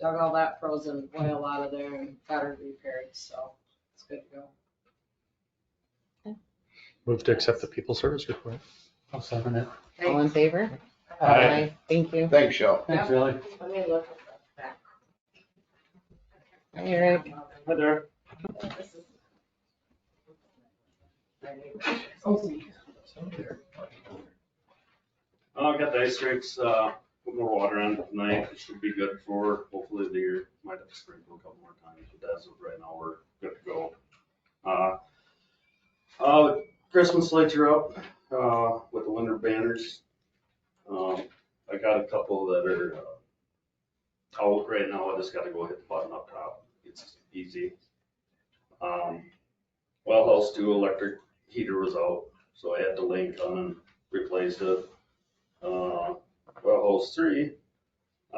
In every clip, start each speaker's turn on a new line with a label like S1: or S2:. S1: dug all that frozen oil out of there and got it repaired, so it's good to go.
S2: Move to accept the people service report.
S3: I'll second it.
S1: Hey,
S4: All in favor?
S2: Aye.
S4: Thank you.
S5: Thanks, y'all.
S3: Thanks, Shelley.
S1: Let me look at that back.
S4: All right.
S3: Hi there. Oh,
S6: Uh, I got the ice rinks, uh, put more water on it tonight, it should be good for hopefully the year, might have to sprinkle a couple more times, but as of right now, we're good to go. Uh, uh, Christmas lights are up, uh, with the winter banners. Um, I got a couple that are, uh, out right now, I just gotta go hit the button up top, it's easy. Um, well, house two electric heater was out, so I had to link on and replace it uh, well, holes three,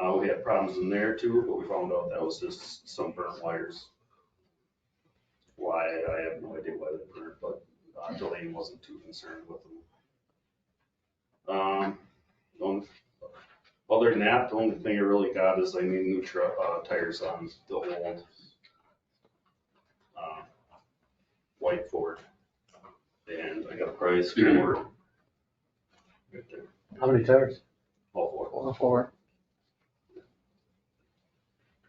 S6: uh, we had problems in there too, but we found out that was just some burnt wires. Why, I have no idea why they burnt, but uh, Delaney wasn't too concerned with them. Um, don't- other than that, the only thing I really got is I need new tru uh, tires on the old, uh, white Ford. And I got a price for, right there,
S3: How many tires?
S6: all four.
S4: All four.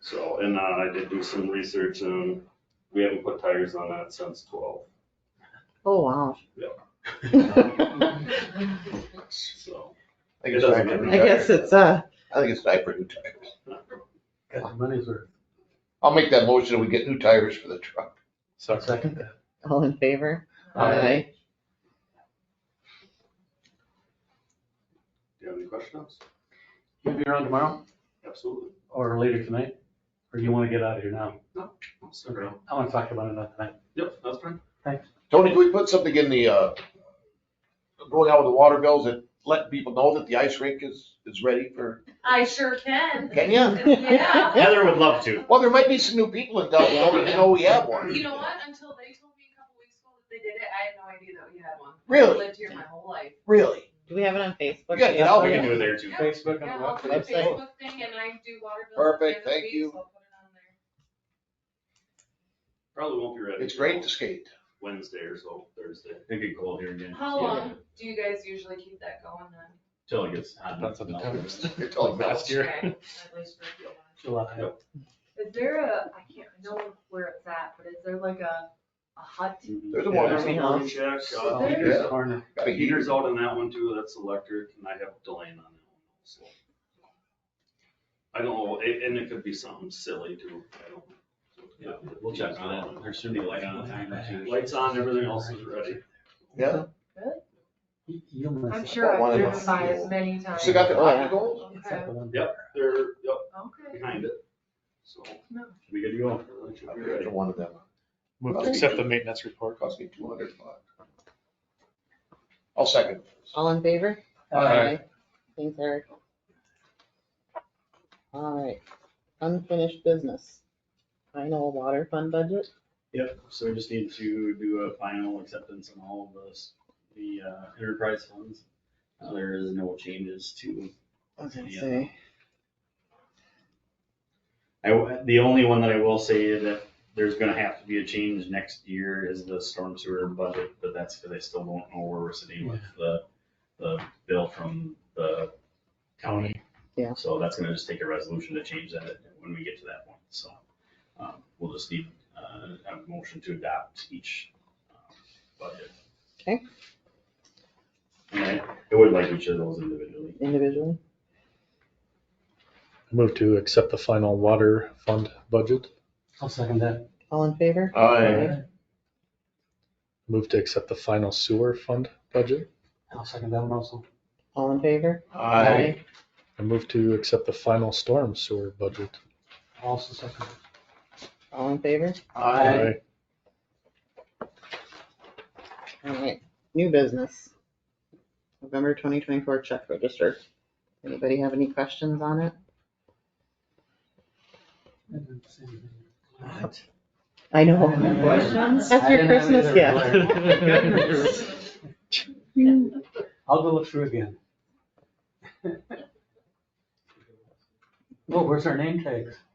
S6: So, and uh, I did do some research and we haven't put tires on that since twelve,
S4: Oh, wow.
S6: so.
S5: I
S6: It doesn't matter.
S4: I guess it's, uh,
S5: I think it's time for new tires.
S3: Got your money's worth.
S5: I'll make that motion and we get new tires for the truck.
S3: Second that.
S4: all in favor?
S3: Aye.
S6: Do you have any questions?
S3: You'll be around tomorrow
S6: Absolutely.
S3: or later tonight? Or you want to get out of here now?
S6: I'll stick around.
S3: I want to talk about it another night.
S6: Yep, that's fine.
S5: Tony, can we put something in the, uh, going out with the water bills and letting people know that the ice rink is, is ready for,
S7: I sure can.
S5: can you?
S7: Yeah.
S4: Heather
S6: would love to.
S5: Well, there might be some new people in Delta, don't even know we have one.
S7: You know what? Until they told me a couple weeks ago that they did it, I had no idea that we had one. I've
S5: Really?
S7: lived here my whole life.
S5: Really?
S4: Do we have it on Facebook?
S5: You gotta get out
S6: We
S5: there.
S6: can do it there too.
S7: Yeah.
S3: Facebook
S7: Yeah,
S3: and
S7: I'll
S3: what?
S7: do a
S4: Website.
S7: Facebook thing and I do water bills. at the
S5: Perfect,
S7: end of the
S5: thank
S7: week,
S5: you.
S7: so I'll put it on there.
S6: Probably won't be ready.
S5: It's great to
S6: till
S5: skate.
S6: Wednesday or so, Thursday. It'd be cold here again.
S7: How long do you guys usually keep that going then?
S6: Till it gets
S2: That's what the times.
S5: It's all
S2: Like last
S5: melts.
S2: year.
S7: Okay, at least for a few months.
S3: July.
S6: Yep.
S8: Is there a, I can't know where it's at, but is there like a, a hut?
S5: There's a
S4: Yeah.
S5: water,
S4: Warming
S6: Warming
S4: house.
S6: Check,
S3: Uh,
S6: uh,
S3: Peter's Corner.
S5: got
S6: the
S5: a heater.
S6: heater's out on that one too, that's electric, and I have Delane on that one also. I don't know, a- and it could be something silly too. I don't-
S9: Yeah, we'll check on it. There should be light on the time or two.
S6: Lights on, everything else is ready.
S5: Yeah,
S3: You- you must-
S8: I'm sure I've
S5: One of
S8: driven
S5: them.
S8: by it many times.
S5: still got the
S4: Oh, yeah.
S5: hockey goals?
S3: It's up
S8: Okay,
S3: to them.
S6: Yep, they're, yep,
S8: okay.
S6: behind it, so.
S8: No.
S6: We good to go? It should
S5: I
S6: be
S5: paid
S6: ready.
S5: for one of them,
S2: Move to accept the maintenance report.
S5: it cost me two hundred bucks. I'll second.
S4: All in favor?
S3: Aye.
S4: Thanks, Eric. All right, unfinished business. Final water fund budget?
S9: Yep, so we just need to do a final acceptance on all of this, the uh, enterprise funds. Uh, There is no changes to,
S4: I was gonna
S9: Yeah.
S4: say,
S9: I, w- the only one that I will say that there's gonna have to be a change next year is the storm sewer budget, but that's because I still don't know where we're sitting with the, the bill from the county.
S4: Yeah.
S9: So that's gonna just take a resolution to change that when we get to that point, so. um, We'll just need uh, a motion to adopt each um, budget.
S4: Okay.
S9: And I I would like each of those individually.
S4: individually.
S2: Move to accept the final water fund budget.
S3: I'll second that.
S4: All in favor?
S5: Aye.
S2: Move to accept the final sewer fund budget.
S3: I'll second that one also.
S4: All in favor?
S5: Aye.
S2: And move to accept the final storm sewer budget.
S3: Also second.
S4: All in favor?
S5: Aye.
S4: All right, new business. November twenty twenty-four check register. Anybody have any questions on it?
S3: What?
S4: I know.
S3: Questions?
S4: That's your Christmas gift.
S3: I'll go look through again. Well, where's our name tags?